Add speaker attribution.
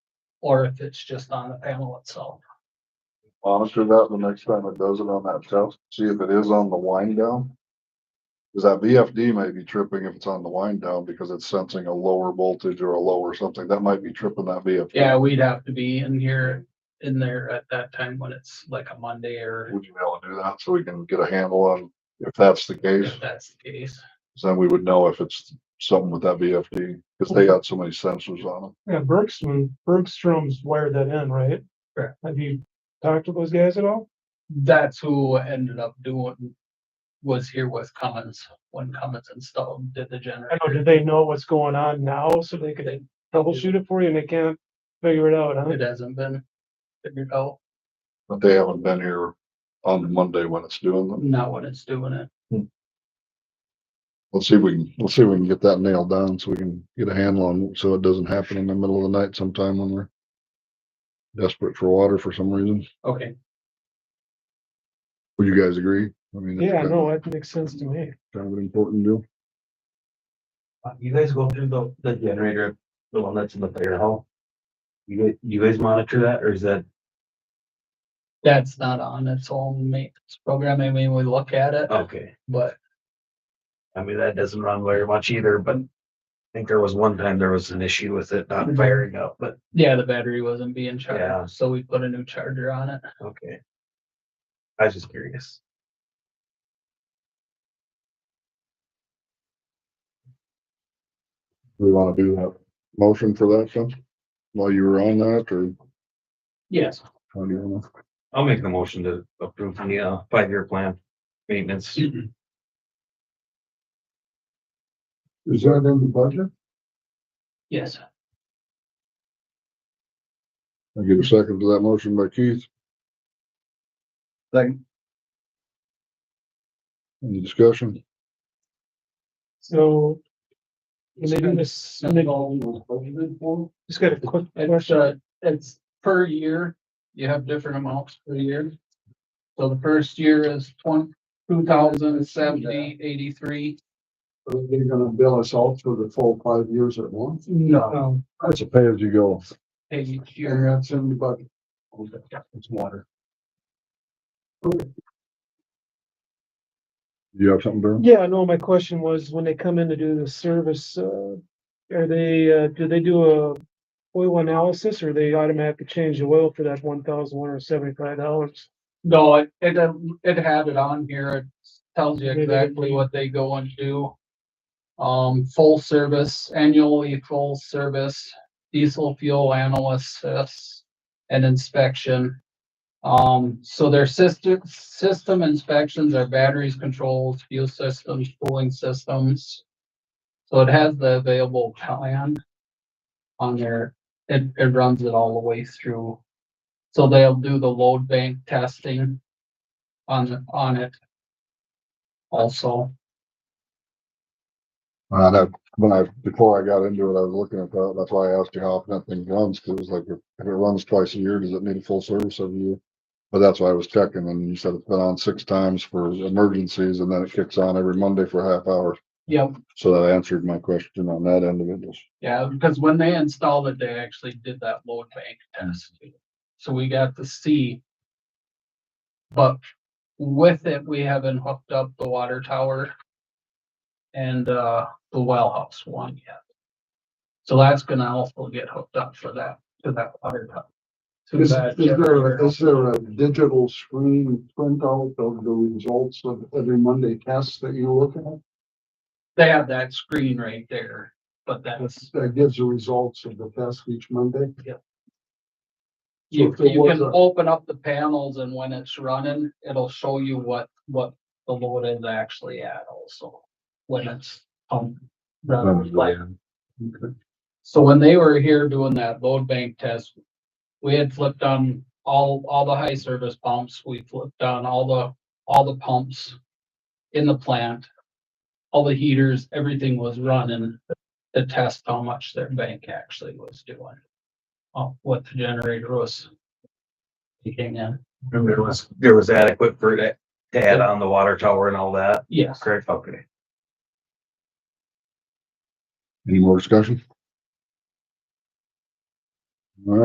Speaker 1: or if it's just on the panel itself.
Speaker 2: monitor that the next time it does it on that test, see if it is on the wind down. Cause that VFD may be tripping if it's on the wind down because it's sensing a lower voltage or a lower something. That might be tripping that VFD.
Speaker 1: Yeah, we'd have to be in here, in there at that time when it's like a Monday or
Speaker 2: Would you be able to do that so we can get a handle on if that's the case?
Speaker 1: if that's the case.
Speaker 2: 'Cause Then we would know if it's something with that VFD, cause they got so many sensors on them.
Speaker 3: Yeah, Bergstrom, Bergstrom's wired that in, right?
Speaker 1: Correct.
Speaker 3: Have you talked to those guys at all?
Speaker 1: That's who ended up doing, was here with Cummins, when Cummins installed, did the
Speaker 3: I know, do
Speaker 1: generator.
Speaker 3: they know what's going on now so they could troubleshoot it for you and they can't figure it out, huh?
Speaker 1: It hasn't been figured out,
Speaker 2: But they haven't been here on Monday when it's doing them.
Speaker 1: not when it's doing it.
Speaker 2: Let's see if we can, let's see if we can get that nailed down so we can get a handle on, so it doesn't happen in the middle of the night sometime when we're desperate for water for some reason.
Speaker 1: Okay,
Speaker 2: Would you guys agree? I mean, it's
Speaker 3: Yeah,
Speaker 2: kind-
Speaker 3: no, that makes sense to me.
Speaker 2: Kind of an important deal.
Speaker 4: Uh, You guys go through the, the generator, the one that's in the fire hall? You, guys- you guys monitor that or is that,
Speaker 1: that's not on its own maintenance program. I mean, we look at it,
Speaker 4: okay,
Speaker 1: but
Speaker 4: I mean, that doesn't run very much either, but. I think there was one time there was an issue with it not firing up, but,
Speaker 1: yeah, the battery wasn't being
Speaker 4: Yeah.
Speaker 1: charged, so we put a new charger on it.
Speaker 4: okay. I was just curious.
Speaker 2: We want to do that motion for that, Sean? While you were on that or?
Speaker 1: Yes.
Speaker 2: how do you wanna-
Speaker 4: I'll make the motion to approve the, uh, five-year plan, maintenance.
Speaker 2: Is that in the budget?
Speaker 1: Yes,
Speaker 2: I get a second to that motion by Keith. Second. Any discussion?
Speaker 3: So. when they do this, when they-
Speaker 1: It's,
Speaker 3: just got a quick
Speaker 1: uh,
Speaker 3: question.
Speaker 1: it's per year, you have different amounts per year. So the first year is twenty, two thousand seventy, eighty-three.
Speaker 2: Are they gonna bill us all for the full five years at once?
Speaker 1: No.
Speaker 3: Um,
Speaker 2: That's a pay as you go.
Speaker 1: Each
Speaker 2: And
Speaker 1: year,
Speaker 2: that's in the budget. It's water. You have something, Darren?
Speaker 3: Yeah, no, my question was when they come in to do the service, uh, are they, uh, do they do a oil analysis or they automatically change the oil for that one thousand one hundred seventy-five dollars?
Speaker 1: no, it, it, it had it on here, it tells you
Speaker 3: Maybe they
Speaker 1: exactly
Speaker 3: do.
Speaker 1: what they go and do. Um, full service, annually full service, diesel fuel analysis and inspection. Um, so their system, system inspections are batteries, controls, fuel systems, cooling systems. So it has the available plan on there. It, it runs it all the way through. So they'll do the load bank testing on, on it also.
Speaker 2: Uh, that, when I, before I got into it, I was looking at that, that's why I asked you how often that thing runs, cause it was like, if if it runs twice a year, does it need a full service every year? But that's why I was checking, and you said it's been on six times for emergencies, and then it kicks on every Monday for a half hour,
Speaker 1: Yep,
Speaker 2: so that answered my question on that end of it, just
Speaker 1: yeah, because when they installed it, they actually did that load bank test. So we got to see. But with it, we haven't hooked up the water tower and, uh, the well house one yet. So that's gonna also get hooked up for that, to that water tower. to
Speaker 5: Is,
Speaker 1: that
Speaker 5: is there,
Speaker 1: generator.
Speaker 5: is there a digital screen printout of the results of every Monday test that you look at?
Speaker 1: They have that screen right there, but that's,
Speaker 5: That gives the results of the test each Monday? So
Speaker 1: you,
Speaker 5: if there
Speaker 1: you
Speaker 5: was
Speaker 1: can
Speaker 5: a-
Speaker 1: open up the panels and when it's running, it'll show you what, what the load is actually at also. When it's, um, running like, so when they were here doing that load bank test, we had flipped on all, all the high service pumps, we flipped on all the, all the pumps in the plant. All the heaters, everything was running to test how much their bank actually was doing. uh, what the generator was. taking in,
Speaker 4: Remember, there was, there was adequate for that, to add on the water tower and all that,
Speaker 1: yes,
Speaker 4: correct? Okay.
Speaker 2: Any more discussion?